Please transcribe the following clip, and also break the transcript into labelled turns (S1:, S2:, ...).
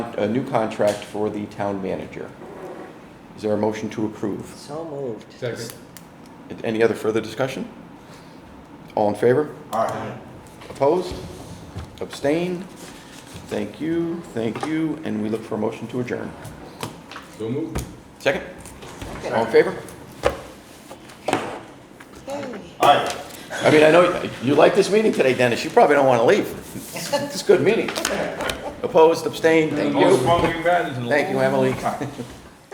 S1: a new contract for the town manager. Is there a motion to approve?
S2: So moved.
S3: Second.
S1: Any other further discussion? All in favor?
S4: Aye.
S1: Opposed? Abstained? Thank you, thank you, and we look for a motion to adjourn.
S3: So moved.
S1: Second? All in favor?
S4: Aye.
S1: I mean, I know you like this meeting today, Dennis. You probably don't want to leave. It's a good meeting. Opposed, abstained, thank
S3: Most
S1: you.
S3: fun we've had is a
S1: Thank you, Emily.
S3: long time.